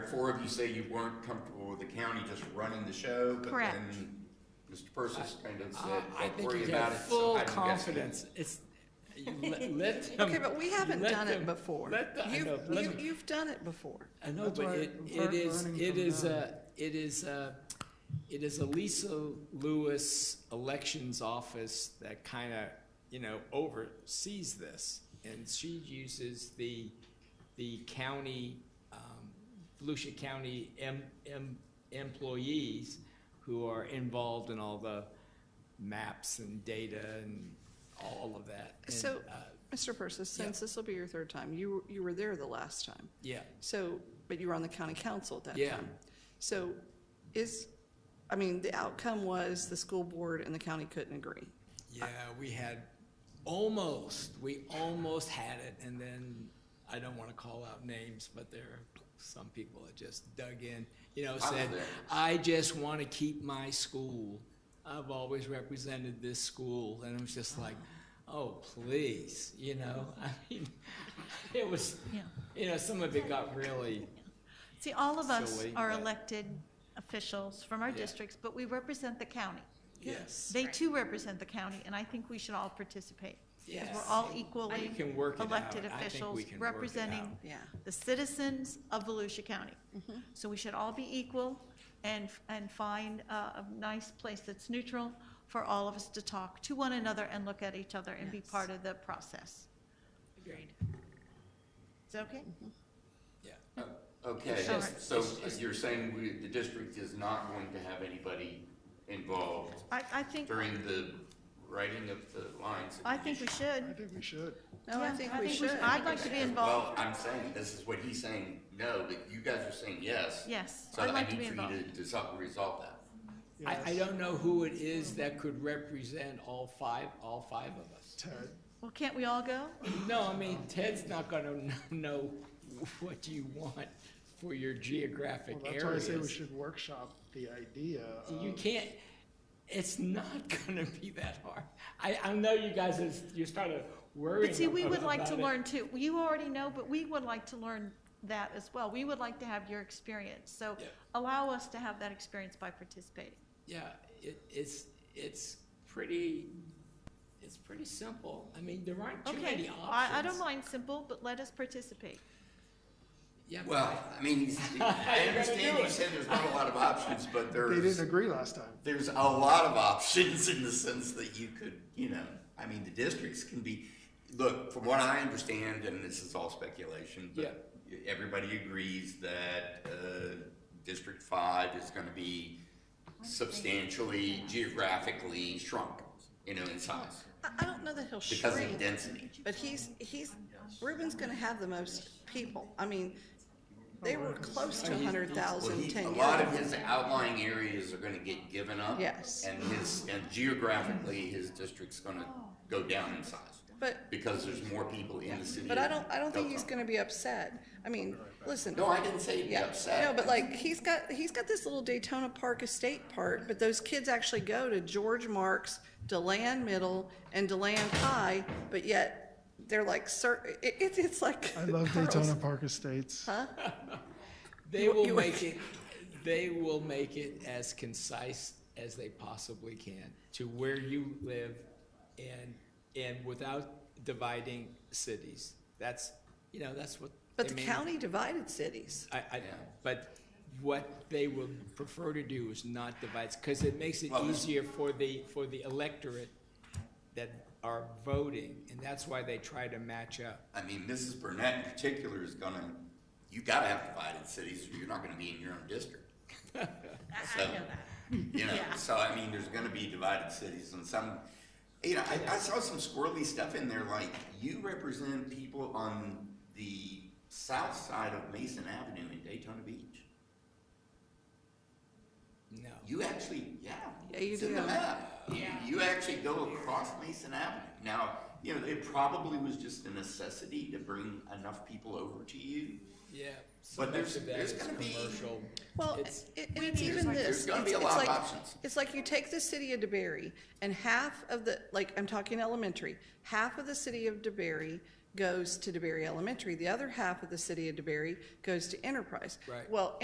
four of you say you weren't comfortable with the county just running the show, but Correct. then Mr. Persis kind of said, Uh, I- I don't think you worry have about it. full somebody will guess it." confidence. It's, you let, let them. Okay, but we you haven't let done it them- before. Let the, I You've- know, let you- them- You've done it before. I know, That's but why it, it start is, learning it from is them. a, it is a, it is a Lisa Lewis elections office that kind of, you know, oversees this. And she uses the, the county, um, Volusia County em, em, employees who are involved in all the maps and data and all of that. And, So, uh, Mr. Persis, yeah. since this will be your third time, you, you were there the last time. Yeah. So, but you were on the county council at that Yeah. time. So is, I mean, the outcome was the school board and the county couldn't agree. Yeah, we had almost, we almost had it, and then I don't want to call out names, but there are some people that just dug in, you know, was said, there. I just want to keep my school. I've always represented this school, and it was just like, oh, please, you know, I mean, it was, Yeah. you know, some of it got really, See, all of us Silly, are but- elected officials from our Yeah. districts, but we represent the county. yes. They too represent the county, and I think we should all participate. Because Yes. we're all We equally can work it out. elected I think we officials can work it representing out. Yeah. the citizens of Volusia County. So we should all be equal and, and find a, a nice place that's neutral for all of us to talk to one another and look at each other and be part of the process. Agreed. Is that okay? Yeah. Uh, Okay, Sure. so you're saying we, the district is not going to have anybody involved I, I think, during the writing of the lines? of I the think we issue? should. I think we should. No, I Yeah, think we should. I'd like to be Well, involved. I'm saying, this is what he's saying, no, but you guys are saying yes. Yes, So I'd I like to need be for you to involved. dissolve, resolve that. I, I Yes. don't know who it is that could represent all five, all five of us. Ted, Well, can't we all go? No, I mean, Ted's not gonna kn- know what you want for your geographic well, that's why I areas. say we should uh, workshop the idea You of- can't, it's not gonna be that hard. I, I know you guys, is- you're starting worrying But see, we would like to about it. learn too. You already know, but we would like to learn that as well. We would like to have your experience. So Yeah. allow us to have that experience by participating. Yeah, it, it's, it's pretty, it's pretty simple. I mean, there aren't too many Okay, options. I, I don't mind simple, but let us participate. Yeah, but Well, I mean, he's- I understand you said there's not a lot of options, but they there's, didn't agree last time. there's a lot of options in the sense that you could, you know, I mean, the districts can be, look, from what I understand, and this is all speculation, but everybody agrees that, uh, District Five is gonna be substantially geographically shrunk, you know, in size, I, I don't know that he'll because of shrink, density. but he's, he's, Ruben's gonna have the most people. I mean, they were close to a hundred Well, thousand he, a ten years lot of ago. his outlying areas are gonna get given up. Yes. And his, and geographically, his district's gonna go down in size, But, because there's more people in the city. but I don't, I don't think of he's Belmont. gonna be upset. I mean, listen. No, I didn't say he'd be Yeah, upset. no, but like, he's got, he's got this little Daytona Park Estate part, but those kids actually go to George Marks, Deland Middle, and Deland High, but yet they're like, sir, it, it's, it's like. I love pearls. Daytona Park Estates. They will you- make it, they will make it as concise as they possibly can to where you live and, and without dividing cities. That's, you know, that's what. But they the mean. county divided cities. I, I, but what they will prefer to do is not divide, because it makes it Well, this- easier for the, for the electorate that are voting, and that's why they try to match up. I mean, Mrs. Burnett in particular is gonna, you gotta have divided cities, or you're not gonna be in your own district. I, I So- know that. You know, so I mean, there's gonna be divided cities and some, you know, I, I saw some squirrely stuff in there, like you represent people on the south side of Mason Avenue in Daytona Beach. No. You actually, yeah. Yeah, you It's in do. the map. You- You actually go across Mason Avenue. Now, you know, it probably was just a necessity to bring enough people over to you. Yeah. so But much there's- of that there's is gonna be- Commercial. Well, it, It's- it- it's even there's this. gonna be a It's- lot of it's like- options. It's like you take the city of DeBerry and half of the, like, I'm talking elementary, half of the city of DeBerry goes to DeBerry Elementary. The other half of the city of DeBerry goes to Enterprise. Right. Well,